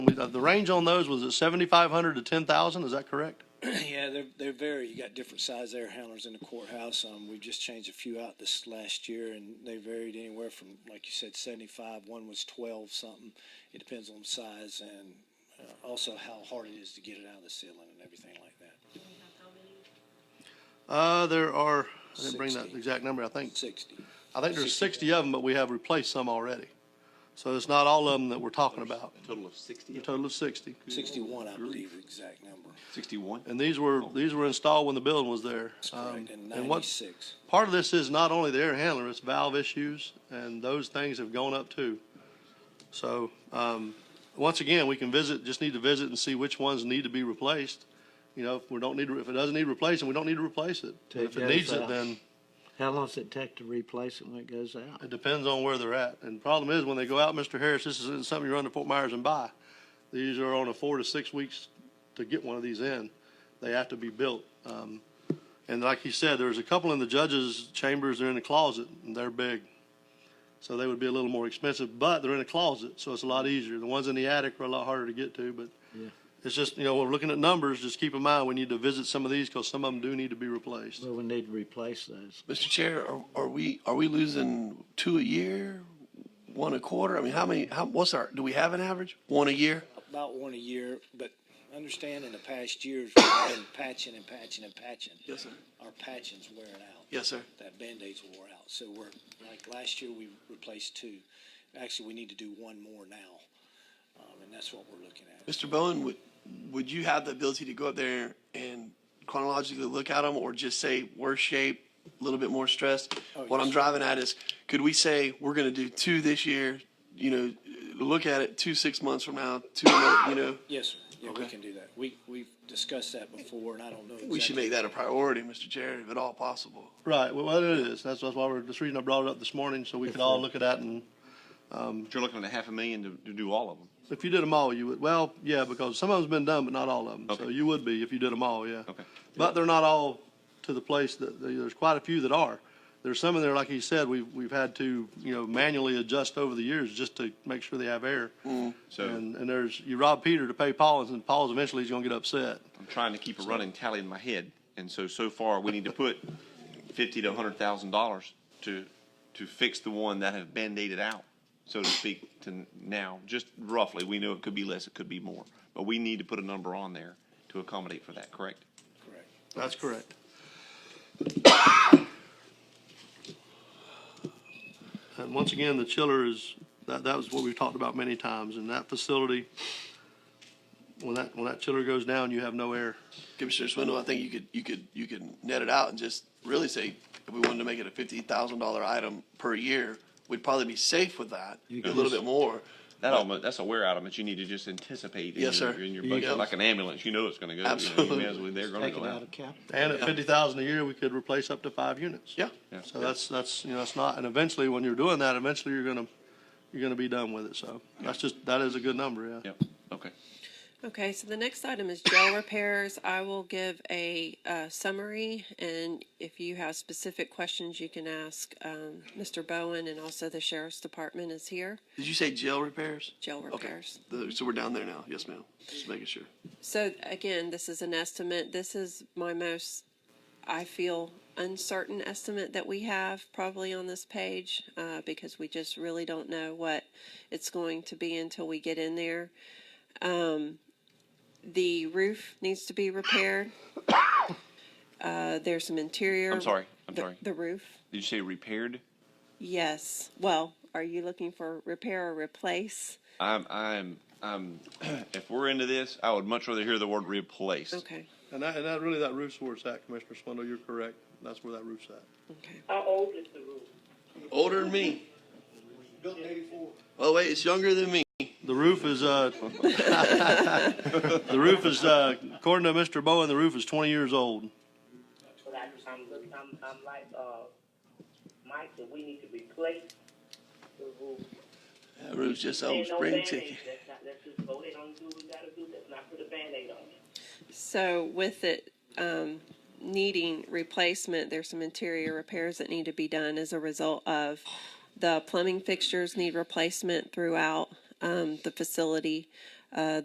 uh, the range on those was at seventy-five hundred to ten thousand, is that correct? Yeah, they're, they're very, you got different size air handlers in the courthouse. Um, we've just changed a few out this last year and they varied anywhere from, like you said, seventy-five, one was twelve something. It depends on size and uh, also how hard it is to get it out of the ceiling and everything like that. Uh, there are, I didn't bring that 60. exact number, I think, Sixty. I think there's sixty of them, but we have replaced some already. So it's not all of them that we're talking about, Total of sixty? a total of sixty. 61, I believe, the exact number. Sixty-one? And these were, these were installed when the building was there. That's Um, correct, and And what, 96. part of this is not only the air handler, it's valve issues, and those things have gone up too. So, um, once again, we can visit, just need to visit and see which ones need to be replaced. You know, if we don't need, to- if it doesn't need replacing, we don't need to replace it. And If it Take needs those it, out. then How long does it take to replace it when it goes out? it depends on where they're at. And problem is, when they go out, Mr. Harris, this isn't something you run to Fort Myers and buy. These are on a four to six weeks to get one of these in. They have to be built. Um, and like he said, there's a couple in the judges' chambers, they're in the closet, and they're big. So they would be a little more expensive, but they're in a closet, so it's a lot easier. The ones in the attic are a lot harder to get to, but Yeah. it's just, you know, we're looking at numbers, just keep in mind, we need to visit some of these, because some of them do need to be replaced. Well, we need to replace those. Mr. Chair, are, are we, are we losing two a year, one a quarter? I mean, how many, how, what's our, do we have an average? One a year? About one a year, but understand in the past years, we've been patching and patching and patching. Yes, sir. Our patching's wearing out. Yes, sir. That Band-Aids wore out. So we're, like last year, we replaced two. Actually, we need to do one more now. Um, and that's what we're looking at. Mr. Bowen, would, would you have the ability to go up there and chronologically look at them or just say worse shape, a little bit more stressed? Oh, What yes, I'm sir. driving at is, could we say, we're gonna do two this year, you know, look at it two, six months from now, two, another- you know? Yes, sir. Yeah, we Okay. can do that. We, we've discussed that before and I don't know. We should exactly- make that a priority, Mr. Chair, if at all possible. Right, well, it is, that's, that's why we're, that's the reason I brought it up this morning, so we could all look at that and But you're looking at a half a million to, to do all of them. If you did them all, you would, well, yeah, because some of them's been done, but not all of them. So Okay. you would be if you did them all, yeah. Okay. But they're not all to the place that, there's quite a few that are. There's some in there, like you said, we've, we've had to, you know, manually adjust over the years just to make sure they have air. Mm-hmm. So I'm And, and there's, you rob Peter to pay Paul, and Paul's eventually he's gonna get upset. trying to keep a running tally in my head. And so, so far, we need to put fifty to a hundred thousand dollars to, to fix the one that have Band-Aided out, so to speak, to now, just roughly. We know it could be less, it could be more, but we need to put a number on there to accommodate for that, correct? Correct. That's correct. And once again, the chiller is, that, that was what we've talked about many times, and that facility, when that, when that chiller goes down, you have no air. Commissioner Swindle, I think you could, you could, you could net it out and just really say, if we wanted to make it a fifty thousand dollar item per year, we'd probably be safe with that, a could little just- bit more. That almost, that's a wear item that you need to just anticipate in Yes, your, sir. in your You budget, go- like an ambulance. You know it's gonna go. you know, you Absolutely. may as well- They're gonna Take it go out out. of cap. And at fifty thousand a year, we could replace up to five units. Yeah, Yeah. So that's, that's, you know, it's not, and eventually, when you're doing that, eventually you're gonna, you're gonna be done with it, so that's just, that is a good number, yeah. Yep, okay. Okay, so the next item is jail repairs. I will give a uh, summary, and if you have specific questions, you can ask um, Mr. Bowen, and also the sheriff's department is here, did you say jail repairs? jail Okay. repairs. The- So we're down there now, yes, ma'am, just making sure. So again, this is an estimate. This is my most, I feel, uncertain estimate that we have probably on this page uh, because we just really don't know what it's going to be until we get in there. Um, the roof needs to be repaired. Uh, there's some interior. I'm sorry, I'm the- sorry. The roof. Did you say repaired? Yes. Well, are you looking for repair or replace? I'm, I'm, I'm, if we're into this, I would much rather hear the word replaced. Okay. And that, and that, really, that roof's where it's at, Commissioner Swindle, you're correct, that's where that roof's at. Okay. How old is the roof? Older than me. Oh, wait, it's younger than me. The roof is, uh, the roof is, uh, according to Mr. Bowen, the roof is twenty years old. But I, I'm, look- I'm, I'm like, uh, Mike, that we need to replace the roof. That roof's just There old ain't no spring Band-Aids. ticket. That's not, that's just go ahead and do what we gotta do, that's not put a Band-Aid on it. So with it um, needing replacement, there's some interior repairs that need to be done as a result of the plumbing fixtures need replacement throughout um, the facility. Uh,